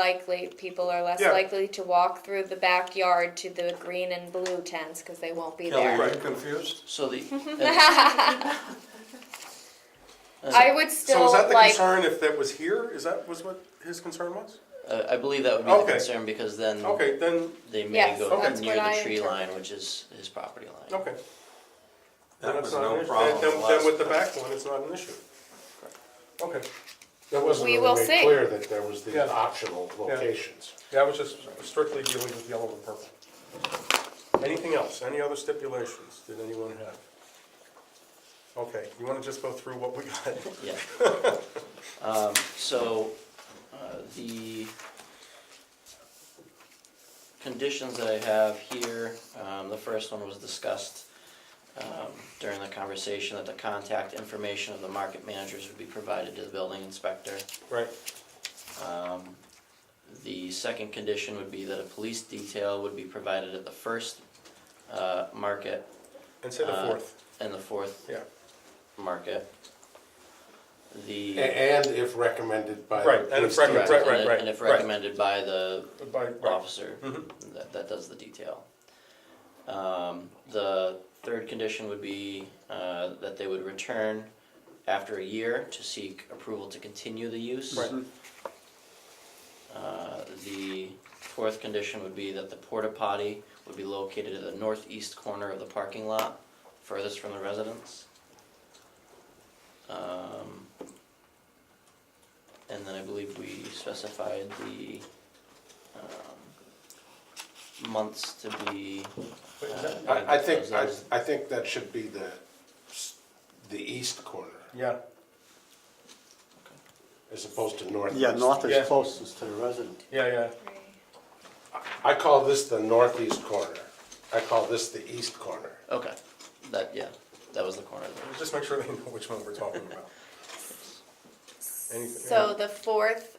likely, people are less Yeah. likely to walk through the backyard to the green and blue tents because they won't be Kelly, there. Are you confused? So the. I would So still is that the like. concern if that was here? Is that was what his concern was? Uh, I believe that would be Okay. the concern because then Okay, then, they may Yes, go that's near what the I tree interpreted. line, which is his property line. okay. Then That it's was not an no issue. problem. Then- Then, then last- with the back one, it's not an issue. Okay, That wasn't We will really see. made clear that there was Yeah. the optional locations. yeah, I was just strictly dealing with yellow and purple. Anything else? Any other stipulations did anyone have? Okay, you wanna just go through what we got? Yeah. Um, so, uh, the conditions that I have here, um, the first one was discussed, um, during the conversation that the contact information of the market managers would be provided to the building inspector. Right, Um, The second condition would be that a police detail would be provided at the first, uh, market and say the Uh, fourth, and the fourth yeah, market. The. A- And if recommended by. the Right, and if police recommended- department. Correct, right, and- right, And if right. recommended by the by, right, officer Mhm. that, that does the detail. Um, the third condition would be, uh, that they would return after a year to seek approval to continue the use. Right. Uh, the fourth condition would be that the porta potty would be located at the northeast corner of the parking lot, furthest from the residence. Um, and then I believe we specified the, um, months to be. Wait, is uh, that- I, I think, I, I think that should be the, s- the east corner, yeah, as opposed to northeast. Yeah, north Yeah. is closest to the resident. yeah, yeah. I call this the northeast corner. I call this the east corner. Okay, that, yeah, that was the corner there. Just make sure they know which one we're talking about. Anything- So the fourth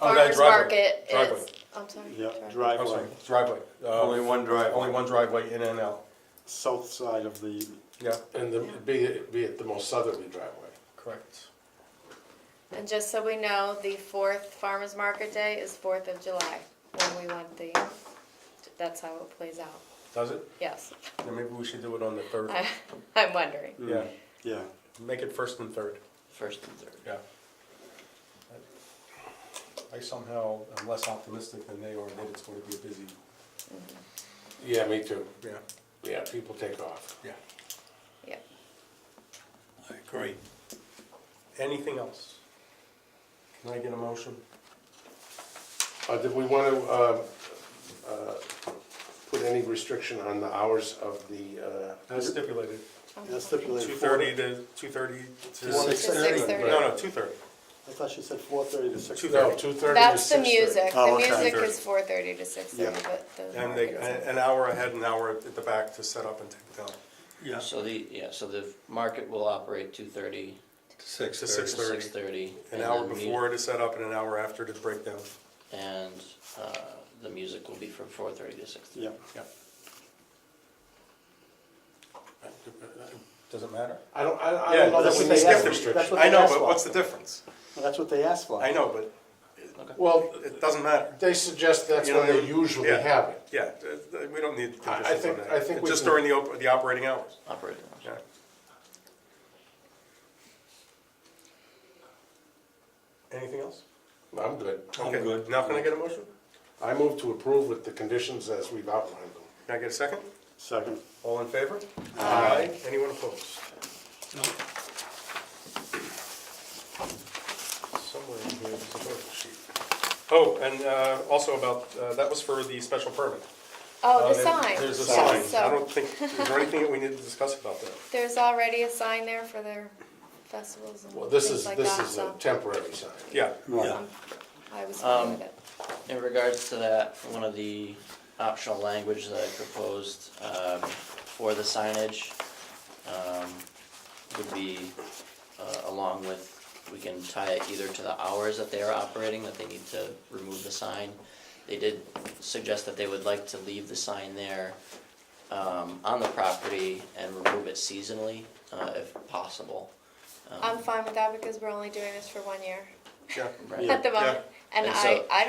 Oh, that farmer's driveway, market driveway. is. I'm sorry. Yeah, driveway. Oh, driveway, sorry, driveway. Uh, Only one driveway. Only one driveway in and out. south side of the, Yeah, And the, be, be it the most southerly driveway. correct. And just so we know, the fourth farmer's market day is Fourth of July, when we want the, that's how it plays out. Does it? Yes, Then maybe we should do it on the third. I, I'm wondering. Mm. Yeah, yeah. make it first and third, First and third. yeah. I somehow am less optimistic than they are that it's going to be a busy, Yeah, me too. yeah, Yeah, people take off. yeah. Yep. I agree. Anything else? Can I get a motion? Uh, did we want to, uh, uh, put any restriction on the hours of the, uh, As stipulated. That's stipulated. Two four- thirty to, two thirty to. Four to six thirty. No, no, two thirty. I thought she said four thirty to six. Two no, thirty. two thirty to That's the 6:30? music. Oh, The okay. music 9:30. is four thirty to six thirty, Yeah. but the. And they, market an is- an hour ahead, an hour at the back to set up and take down. Yeah, So the, yeah, so the market will operate two thirty Six to to six thirty. six thirty. An hour before to set up and an hour after to break down. And, uh, the music will be from four thirty to six thirty. yeah. Doesn't matter. I don't, I, I Yeah, don't know that that's we what need they have that to- restriction. what I they know, asked but for. what's the difference? Well, That's what they asked for. I know, but Well, it doesn't matter. they suggest that's You know, when they they- usually yeah. have it. Yeah, uh, uh, we don't need I- I conditions on think- that. I think we Just can- during the, op- the operating hours. Operating hours. Yeah. Anything else? I'm good. Okay. Now can I get a motion? I move to approve with the conditions as we've outlined them. Can I get a second? Second. All in favor? Aye. Anyone opposed? Somewhere in here, there's a vote sheet. Oh, and uh, also about, uh, that was for the special permit. Oh, Uh, the there- sign. There's a sign. Yeah, I So don't think, is there anything that we need to discuss about that? there's already a sign there for their festivals and Well, this things is, like this that, is a so temporary sign. Yeah, Right. I was fine Um, with it. In regards to that, one of the optional language that I proposed um, for the signage um, would be uh, along with, we can tie it either to the hours that they are operating, that they need to remove the sign. They did suggest that they would like to leave the sign there um, on the property and remove it seasonally uh, if possible. Um, I'm fine with that because we're only doing this for one year yeah. right. at the moment. And And I, so- I